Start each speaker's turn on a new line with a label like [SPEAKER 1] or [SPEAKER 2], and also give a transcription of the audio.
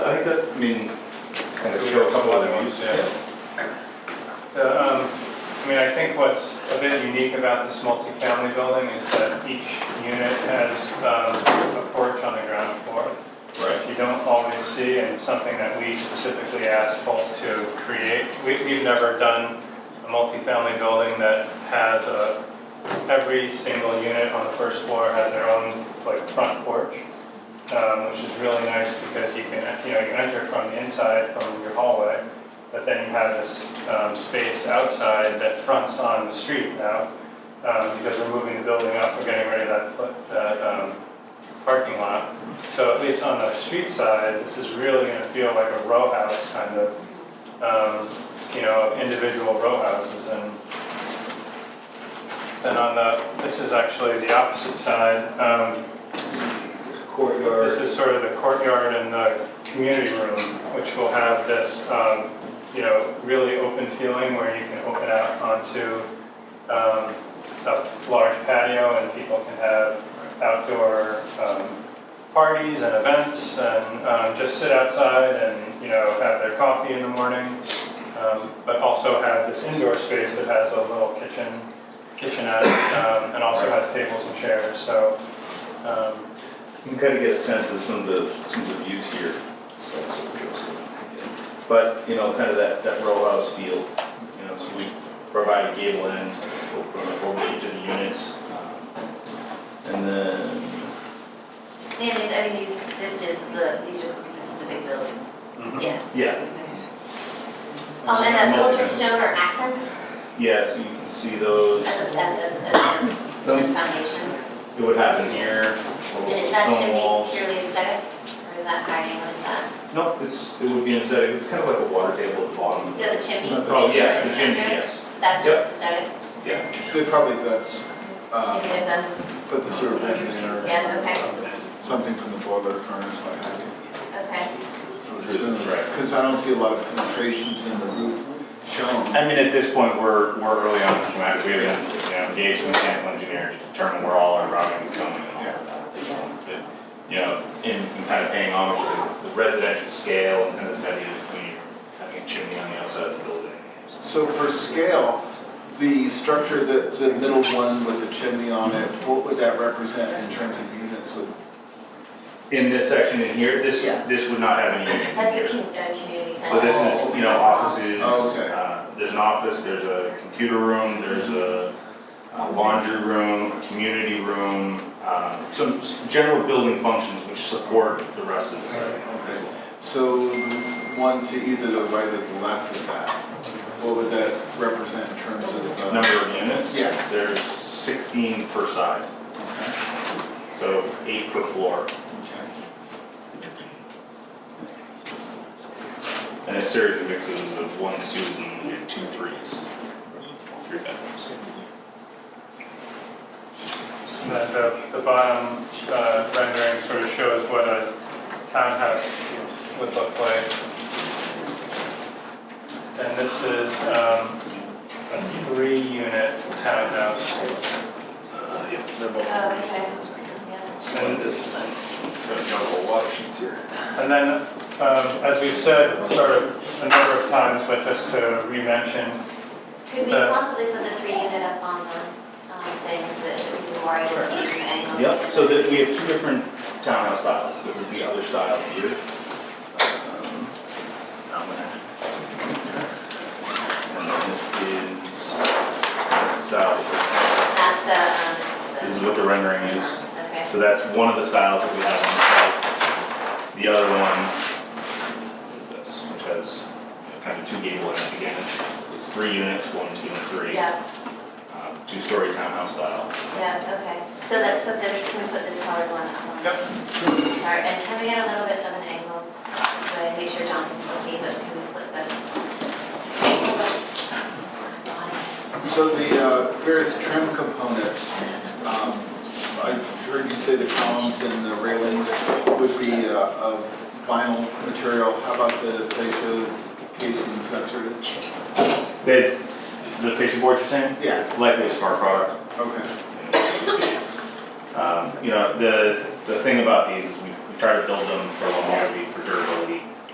[SPEAKER 1] I mean, kind of
[SPEAKER 2] We
[SPEAKER 1] show
[SPEAKER 2] have
[SPEAKER 1] a couple
[SPEAKER 2] some
[SPEAKER 1] other
[SPEAKER 2] other
[SPEAKER 1] ones.
[SPEAKER 2] ones, yeah. The, um, I mean, I think what's a bit unique about this multifamily building is that each unit has um, a porch on the ground floor, which
[SPEAKER 1] Right.
[SPEAKER 2] you don't always see, and it's something that we specifically asked Holt to create. We- We've never done a multifamily building that has a, every single unit on the first floor has their own, like, front porch, um, which is really nice because you can, you know, you enter from the inside, from your hallway, but then you have this um, space outside that fronts on the street now, um, because we're moving the building up, we're getting rid of that, foot- that um, parking lot. So at least on the street side, this is really gonna feel like a row house kind of, um, you know, individual row houses and then on the, this is actually the opposite side. Um, This
[SPEAKER 1] Courtyard,
[SPEAKER 2] is sort of the courtyard and the community room, which will have this, um, you know, really open feeling where you can open out onto um, a large patio and people can have outdoor um, parties and events and um, just sit outside and, you know, have their coffee in the morning. um, But also have this indoor space that has a little kitchen, kitchenette, um, and also has tables and chairs, so. um,
[SPEAKER 1] you can kind of get a sense of some of the, some of the views here. So, so, so, yeah. But, you know, kind of that, that row house feel, you know, so we provide a gable end, we'll put an over each of the units. And then,
[SPEAKER 3] Yeah, these, I mean, these, this is the, these are, this is the big building,
[SPEAKER 1] Mm-hmm.
[SPEAKER 3] yeah.
[SPEAKER 1] yeah,
[SPEAKER 3] Um, and the filtered stone or accents
[SPEAKER 1] yeah, so you can see those,
[SPEAKER 3] as a, as a, as a
[SPEAKER 1] Them.
[SPEAKER 3] foundation?
[SPEAKER 1] it would happen here,
[SPEAKER 3] And
[SPEAKER 1] little
[SPEAKER 3] is that
[SPEAKER 1] stone
[SPEAKER 3] chimney
[SPEAKER 1] walls.
[SPEAKER 3] purely aesthetic, or is that hiding, what is that?
[SPEAKER 1] No, it's, it would be instead, it's kind of like a water table at the bottom. of the-
[SPEAKER 3] No, the chimney, the
[SPEAKER 1] Oh,
[SPEAKER 3] picture
[SPEAKER 1] yes,
[SPEAKER 3] in
[SPEAKER 1] the
[SPEAKER 3] the
[SPEAKER 1] chimney,
[SPEAKER 3] center?
[SPEAKER 1] yes,
[SPEAKER 3] That's
[SPEAKER 1] Yep.
[SPEAKER 3] just aesthetic?
[SPEAKER 1] yeah.
[SPEAKER 4] They probably, that's,
[SPEAKER 1] Uh-huh.
[SPEAKER 3] Maybe
[SPEAKER 4] uh,
[SPEAKER 3] there's a,
[SPEAKER 4] put the sewer plant in or
[SPEAKER 3] yeah, okay,
[SPEAKER 4] something from the boiler furnace, like that.
[SPEAKER 3] okay.
[SPEAKER 1] Right.
[SPEAKER 4] Because I don't see a lot of penetrations in the roof shown.
[SPEAKER 5] I mean, at this point, we're, we're early on in this matter, we haven't, you know, engaged a mechanical engineer to determine where all our routing is going and all of that. So, but, You know, in, in kind of paying homage to the residential scale and kind of this idea that we having a chimney on the outside of the building.
[SPEAKER 4] So for scale, the structure, that the middle one with the chimney on it, what would that represent in terms of units? Would-
[SPEAKER 5] In this section in here, this,
[SPEAKER 3] Yeah.
[SPEAKER 5] this would not have any units
[SPEAKER 3] That's the
[SPEAKER 5] in here.
[SPEAKER 3] com- uh, community center.
[SPEAKER 5] So this is, you know, offices,
[SPEAKER 4] Oh, okay.
[SPEAKER 5] uh, there's an office, there's a computer room, there's a uh, laundry room, a community room, um, some s- general building functions which support the rest of the site.
[SPEAKER 4] Okay. So one to either the right or the left of that, what would that represent in terms of? uh,
[SPEAKER 5] number of units.
[SPEAKER 4] Yeah.
[SPEAKER 5] There's 16 per side,
[SPEAKER 4] Okay.
[SPEAKER 5] so eight per floor. And a series of mixes of one student and two threes, three bedrooms.
[SPEAKER 2] And then the, the bottom uh, rendering sort of shows what a townhouse would look like. And this is um, a three-unit townhouse.
[SPEAKER 3] Oh, okay, yeah.
[SPEAKER 2] And
[SPEAKER 5] Got a whole lot of sheets here.
[SPEAKER 2] And then, um, as we've said sort of a number of times, but just to re-mention,
[SPEAKER 3] Could we
[SPEAKER 2] Uh,
[SPEAKER 3] possibly put the three unit up on the, um, things that we were able to see from any angle?
[SPEAKER 5] Yep, so that we have two different townhouse styles. This is the other style here. Um, I'm gonna- And then this is, this is the style,
[SPEAKER 3] That's the, um,
[SPEAKER 5] this
[SPEAKER 3] this
[SPEAKER 5] is
[SPEAKER 3] is
[SPEAKER 5] what the rendering is.
[SPEAKER 3] the, okay.
[SPEAKER 5] So that's one of the styles that we have on site. The other one is this, which has kind of two gable ends again. It's- It's three units, one, two, and three.
[SPEAKER 3] Yeah,
[SPEAKER 5] Um, Two-story townhouse style.
[SPEAKER 3] yeah, okay. So let's put this, can we put this colored one up? on-
[SPEAKER 5] Yep.
[SPEAKER 3] Sorry, and can we get a little bit of an angle? So I make sure John can still see, but can we flip that?
[SPEAKER 4] So the uh, various trim components, um, I heard you say the columns and the railings would be uh, of vinyl material. How about the fascia casings, that sort of?
[SPEAKER 5] The, the fishing board you're saying?
[SPEAKER 4] Yeah,
[SPEAKER 5] Likely a smart product.
[SPEAKER 4] okay.
[SPEAKER 5] Um, You know, the, the thing about these is we we try to build them for longevity, for durability,